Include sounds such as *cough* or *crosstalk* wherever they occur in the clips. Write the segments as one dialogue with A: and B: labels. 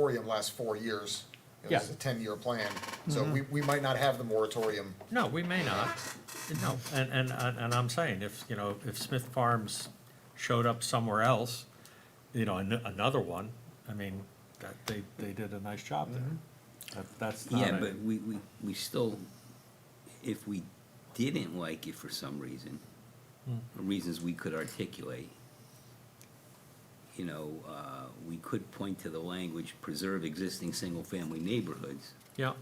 A: moratorium lasts four years. You know, This
B: Yeah.
A: is a ten-year plan, so
C: Mm-hmm.
A: we, we might not have the moratorium.
B: No, we may not, no, and, and, and and I'm saying, if, you know, if Smith Farms showed up somewhere else, you know, an- another one, I mean, that, they, they did a nice job there. That- That's not
D: Yeah,
B: a,
D: but we, we, we still, if we didn't like it for some reason,
B: Hmm.
D: or reasons we could articulate, you know, uh, we could point to the language, preserve existing single-family neighborhoods
B: yeah,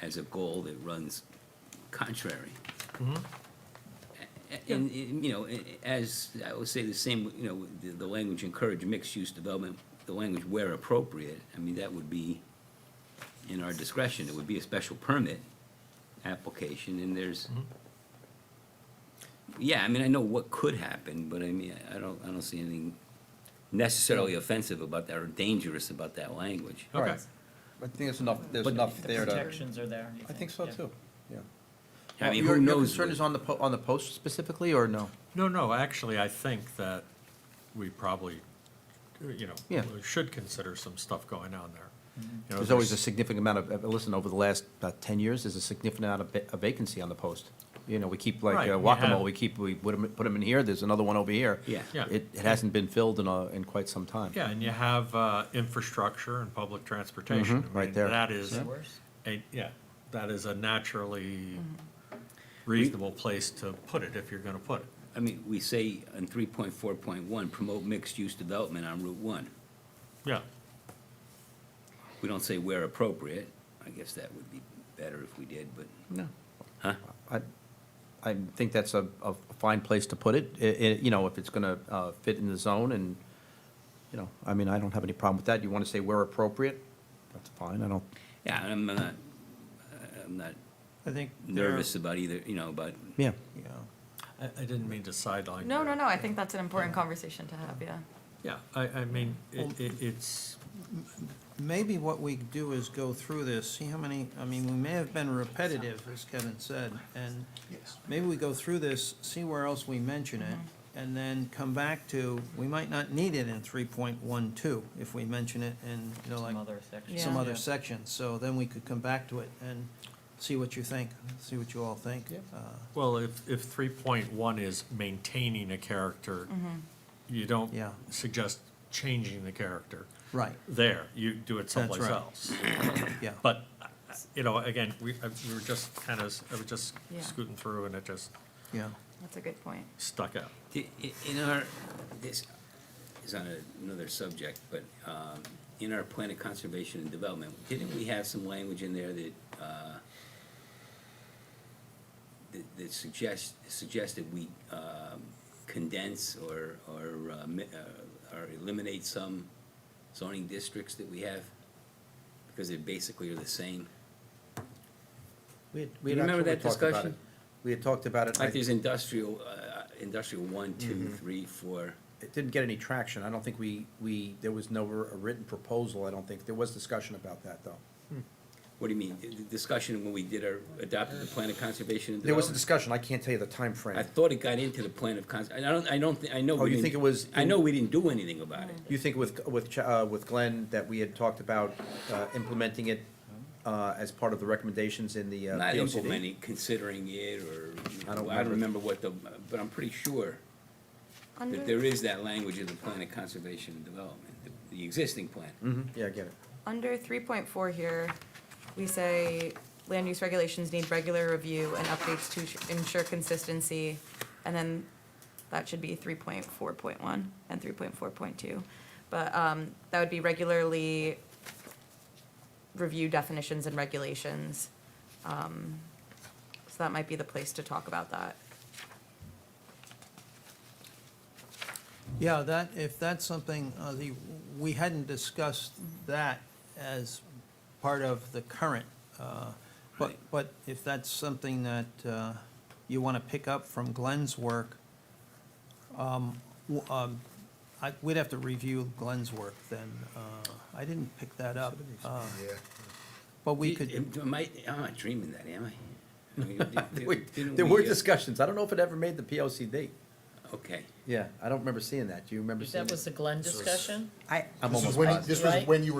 D: as a goal that runs contrary. A- And, and, you know, a- a- as, I would say the same, you know, the, the language encourage mixed-use development, the language where appropriate, I mean, that would be in our discretion, it would be a special permit application, and there's, yeah, I mean, I know what could happen, but I mean, I don't, I don't see anything necessarily offensive about that or dangerous about that language.
B: okay,
C: I think there's enough, there's
D: But
C: enough
E: The
C: there to,
E: protections are there. you
C: I think so
E: yeah.
C: too, yeah.
D: I mean,
C: Your-
D: who knows?
C: Your concern
D: what-
C: is on the, po- on the post specifically, or no?
B: no, no, actually, I think that we probably, you know,
C: Yeah.
B: should consider some stuff going on there. You know,
C: There's always a significant amount of- of, listen, over the last about 10 years, there's a significant amount of va- of vacancy on the post. You know, we keep
B: Right,
C: like uh,
B: we have-
C: Wacamo, we keep, we put them, in here, there's another one over here.
D: Yeah.
B: Yeah.
C: It, it hasn't been filled in, a- in quite some time.
B: Yeah, and you have, uh, infrastructure and public transportation.
C: Mhm,
B: I
C: right
B: mean,
C: there.
B: That is,
E: Is it worse?
B: a- yeah, that is a naturally
F: Mm-hmm.
B: reasonable place to put it, if you're gonna put it.
D: I mean, we say in three point four point one, promote mixed-use development on Route One.
B: Yeah,
D: We don't say where appropriate. I guess that would be better if we did, but,
C: No.
D: huh?
C: I, I think that's a, a fine place to put it, i- i- you know, if it's gonna, uh, fit in the zone and, you know, I mean, I don't have any problem with that. You wanna say where appropriate, that's fine, I don't,
D: Yeah, I'm not, I'm not
G: I think there-
D: nervous about either, you know, about,
C: yeah.
G: Yeah,
B: I, I didn't mean to sideline.
F: No,
B: you.
F: no, no, I think that's an important conversation to have, yeah.
B: Yeah, I, I mean, it, it, it's,
G: maybe what we do is go through this, see how many, I mean, we may have been repetitive, as Kevin said, and
A: Yes.
G: maybe we go through this, see where else we mention it,
E: Mm-hmm.
G: and then come back to, we might not need it in three point one two, if we mention it in, you know, like,
E: Some other sections.
G: some
F: Yeah.
G: other sections, so then we could come back to it and see what you think, see what you all think. Uh,
B: well, if, if three point one is maintaining a character,
F: Mm-hmm.
B: you don't
G: Yeah.
B: suggest changing the character
G: Right,
B: there, you do it
G: That's
B: someplace
G: right.
B: else.
G: yeah.
B: But, uh, you know, again, we, I- we were just kind of, I was just
F: Yeah.
B: scooting through and it just
G: Yeah,
F: That's a good point.
B: stuck out.
D: i- i- in our, this is on a- another subject, but, um, in our plan of conservation and development, didn't we have some language in there that, uh, that- that suggests, suggested we, um, condense or, or, uh, mi- uh, or eliminate some zoning districts that we have? Because they basically are the same.
C: Do
D: we had remember actually that talked about discussion? it.
C: We had talked about it,
D: Like there's industrial, uh, industrial one, two, three, four.
C: it didn't get any traction. I don't think we, we, there was never a written proposal, I don't think. There was discussion about that, though.
D: What do you mean? The- The discussion when we did our, adopted the plan of conservation and
C: There was a
D: development?
C: discussion, I can't tell you the
D: I
C: timeframe.
D: thought it got into the plan of cons, I don't, I don't, thi- I know.
C: Oh,
D: we
C: you
D: didn't-
C: think it was
D: I
C: in-
D: know we didn't do anything about it.
C: You think with, with, Ch- uh, with Glenn, that we had talked about uh, implementing it uh, as part of the recommendations in the uh,
D: Not
C: POCD?
D: implementing, considering it, or, I
C: I don't
D: don't remember
C: remember.
D: what the, but I'm pretty sure
F: Under-
D: that there is that language in the plan of conservation and development, the- the existing plan.
C: Mhm, yeah, I get it.
F: Under three point four here, we say land use regulations need regular review and updates to ensure consistency. And then that should be three point four point one and three point four point two. But, um, that would be regularly review definitions and regulations. Um, so that might be the place to talk about that.
G: Yeah, that, if that's something, uh, the, we hadn't discussed that as part of the current, uh, but,
D: Right.
G: but if that's something that uh, you want to pick up from Glenn's work, um, w- um, I, we'd have to review Glenn's work then. Uh, I didn't pick that up, uh,
A: Yeah.
G: but we could,
D: Am I, am I dreaming
C: *laughs*
D: that, am I? I mean, did-
C: Wait,
D: didn't
C: There were
D: we, uh,
C: discussions, I don't know if it ever made the POCD.
D: Okay.
C: Yeah, I don't remember seeing that. Do you remember seeing
E: That
C: it?
E: was the Glenn discussion?
C: I'm
A: This was
C: almost
A: when,
C: positive.
A: this was
E: Right?
A: when you were